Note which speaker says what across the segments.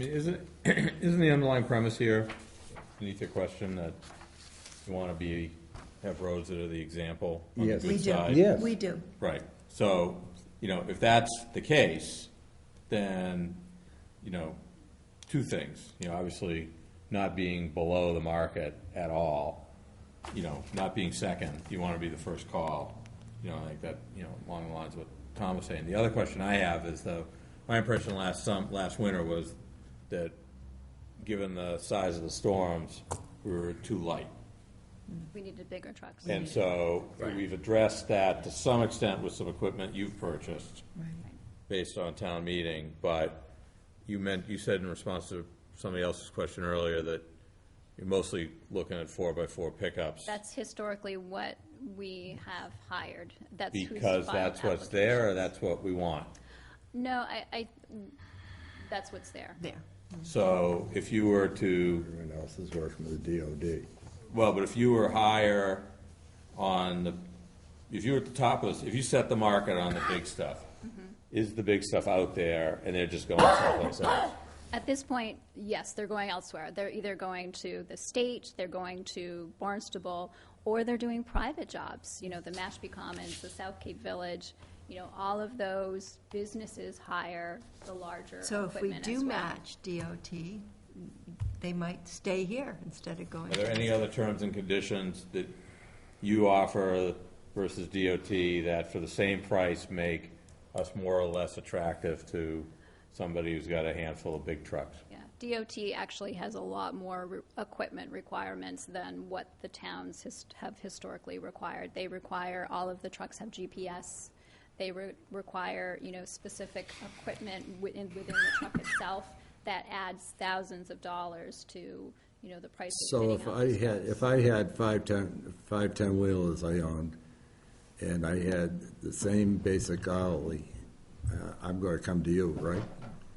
Speaker 1: I mean, Isn't, isn't the underlying premise here, beneath your question, that you want to be, have roads that are the example on the
Speaker 2: Yes.
Speaker 1: good
Speaker 3: We do.
Speaker 1: side?
Speaker 2: Yes.
Speaker 3: We do.
Speaker 1: Right, so, you know, if that's the case, then, you know, two things, you know, obviously, not being below the market at all, you know, not being second, you want to be the first call, you know, I think that, you know, along the lines of what Tom was saying. The other question I have is though, my impression last some, last winter was that, given the size of the storms, we were too light.
Speaker 4: We needed bigger trucks.
Speaker 1: And so we've addressed that to some extent with some equipment you've purchased based on town meeting, but you meant, you said in response to somebody else's question earlier that you're mostly looking at four by four pickups.
Speaker 4: That's historically what we have hired. That's who's
Speaker 1: Because
Speaker 4: filed
Speaker 1: that's what's there or
Speaker 4: applications. Mm-hmm.
Speaker 1: that's what we want.
Speaker 4: No, I, I, that's what's there.
Speaker 3: There.
Speaker 1: So if you were to,
Speaker 2: Everyone else is working with the DOD.
Speaker 1: well, but if you were higher on the, if you were at the top of this, if you set the market on the big stuff,
Speaker 4: Mm-hmm.
Speaker 1: is the big stuff out there and they're just going someplace else?
Speaker 4: At this point, yes, they're going elsewhere. They're either going to the state, they're going to Barnstable, or they're doing private jobs. You know, the Mashpee Commons, the South Cape Village, you know, all of those businesses hire the larger
Speaker 3: So if we
Speaker 4: equipment as
Speaker 3: do
Speaker 4: well.
Speaker 3: match DOT, they might stay here instead of going.
Speaker 1: Are there any other terms and conditions that you offer versus DOT that for the same price make us more or less attractive to somebody who's got a handful of big trucks?
Speaker 4: Yeah, DOT actually has a lot more re- equipment requirements than what the towns his- have historically required. They require, all of the trucks have GPS. They re- require, you know, specific equipment within, within the truck itself that adds thousands of dollars to, you know, the price of
Speaker 2: So
Speaker 4: fitting
Speaker 2: if
Speaker 4: out
Speaker 2: I
Speaker 4: these
Speaker 2: had,
Speaker 4: trucks.
Speaker 2: if I had five ten, five ten wheelers I owned, and I had the same basic hourly, uh, I'm gonna come to you, right?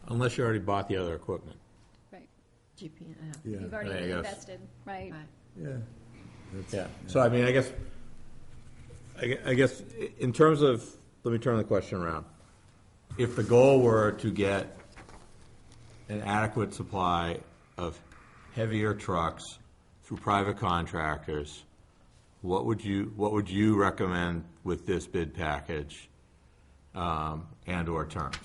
Speaker 1: Unless you already bought the other equipment.
Speaker 4: Right.
Speaker 3: GP,
Speaker 2: Yeah.
Speaker 4: You've
Speaker 1: There you
Speaker 4: already
Speaker 1: go.
Speaker 4: invested, right?
Speaker 3: Right.
Speaker 2: Yeah.
Speaker 1: Yeah, so I mean, I guess, I gue- I guess, i- in terms of, let me turn the question around. If the goal were to get an adequate supply of heavier trucks through private contractors, what would you, what would you recommend with this bid package um, and/or terms?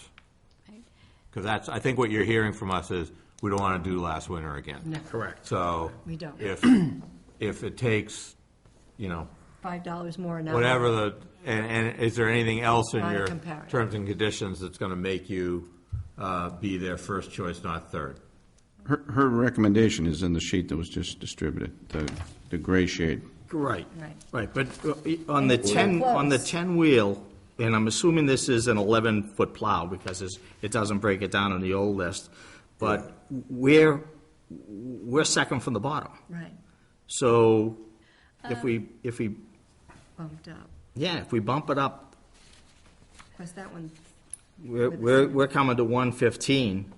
Speaker 4: Right.
Speaker 1: Because that's, I think what you're hearing from us is, we don't want to do last winter again.
Speaker 3: No.
Speaker 1: Correct. So.
Speaker 3: We don't.
Speaker 1: If, if it takes, you know,
Speaker 3: Five dollars more an hour.
Speaker 1: whatever the, and, and is there anything else in
Speaker 3: On a
Speaker 1: your
Speaker 3: comparative.
Speaker 1: terms and conditions that's going to make you uh, be their first choice, not third?
Speaker 5: Her, her recommendation is in the sheet that was just distributed, the, the gray shade.
Speaker 6: Right,
Speaker 3: Right.
Speaker 6: right, but uh, on the
Speaker 3: it's
Speaker 6: 10,
Speaker 3: close.
Speaker 6: on the 10-wheel, and I'm assuming this is an 11-foot plow, because it's- it doesn't break it down on the old list, but we're, we're second from the bottom.
Speaker 3: Right,
Speaker 6: So if we, if we,
Speaker 3: bumped up.
Speaker 6: yeah, if we bump it up,
Speaker 3: Was that one,
Speaker 6: we're, we're we're coming to 115.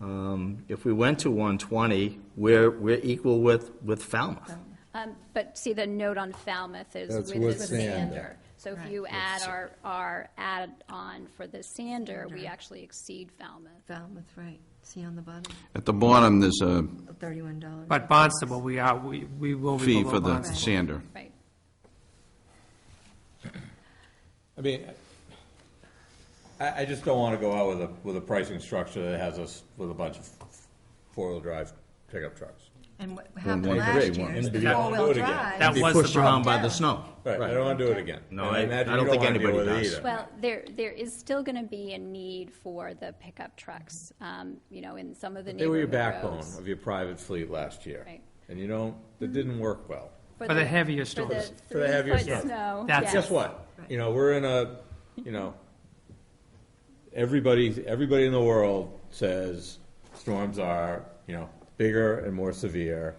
Speaker 6: Um, If we went to 120, we're, we're equal with, with Falmouth.
Speaker 4: Um, But see, the note on Falmouth is
Speaker 2: That's
Speaker 4: with the
Speaker 2: with sander.
Speaker 4: sander. So if
Speaker 3: Right.
Speaker 4: you add our, our add-on for the sander, we actually exceed Falmouth.
Speaker 3: Falmouth, right, see on the bottom,
Speaker 5: At the bottom, there's a
Speaker 3: thirty-one dollars.
Speaker 7: But Barnstable, we are, we, we will be
Speaker 5: fee
Speaker 7: below
Speaker 5: for the
Speaker 3: Right.
Speaker 7: Barnstable.
Speaker 5: sander.
Speaker 4: Right.
Speaker 1: I mean, I, I just don't want to go out with a, with a pricing structure that has us with a bunch of four-wheel drive pickup trucks.
Speaker 3: And what happened
Speaker 5: one
Speaker 3: last
Speaker 5: grade,
Speaker 3: year
Speaker 5: one-
Speaker 3: is the
Speaker 1: Yeah. Do
Speaker 3: four-wheel
Speaker 1: it again.
Speaker 7: That
Speaker 3: drive.
Speaker 6: Be
Speaker 7: was the
Speaker 6: pushed around by
Speaker 3: problem.
Speaker 6: the snow.
Speaker 1: Right, I don't want to do it again.
Speaker 6: No,
Speaker 1: And
Speaker 6: I-
Speaker 1: imagine
Speaker 6: I
Speaker 1: you
Speaker 6: don't think
Speaker 1: wanna deal
Speaker 6: anybody
Speaker 1: with it
Speaker 6: does.
Speaker 1: either.
Speaker 4: Well, there, there is still going to be a need for the pickup trucks, um, you know, in some of the
Speaker 1: They were your
Speaker 4: neighborhood
Speaker 1: backbone
Speaker 4: roads.
Speaker 1: of your private fleet last year.
Speaker 4: Right.
Speaker 1: And you don't, that didn't work well.
Speaker 7: For the heavier
Speaker 4: for the
Speaker 7: storms.
Speaker 1: For the heavier
Speaker 4: three-foot
Speaker 1: stuff.
Speaker 4: snow,
Speaker 7: That's-
Speaker 4: yes.
Speaker 1: guess what? You know, we're in a, you know, everybody, everybody in the world says storms are, you know, bigger and more severe,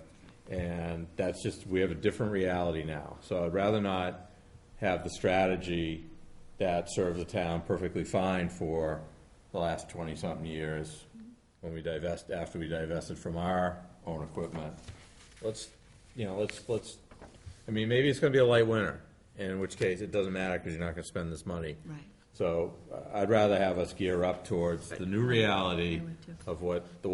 Speaker 1: and that's just, we have a different reality now. So I'd rather not have the strategy that served the town perfectly fine for the last twenty-something years, when we divest, after we divested from our own equipment. Let's, you know, let's, let's I mean, maybe it's gonna be a light winter, in which case it doesn't matter because you're not gonna spend this money.
Speaker 3: Right.
Speaker 1: So uh, I'd rather have us gear up towards the new reality
Speaker 3: I would too.
Speaker 1: of what the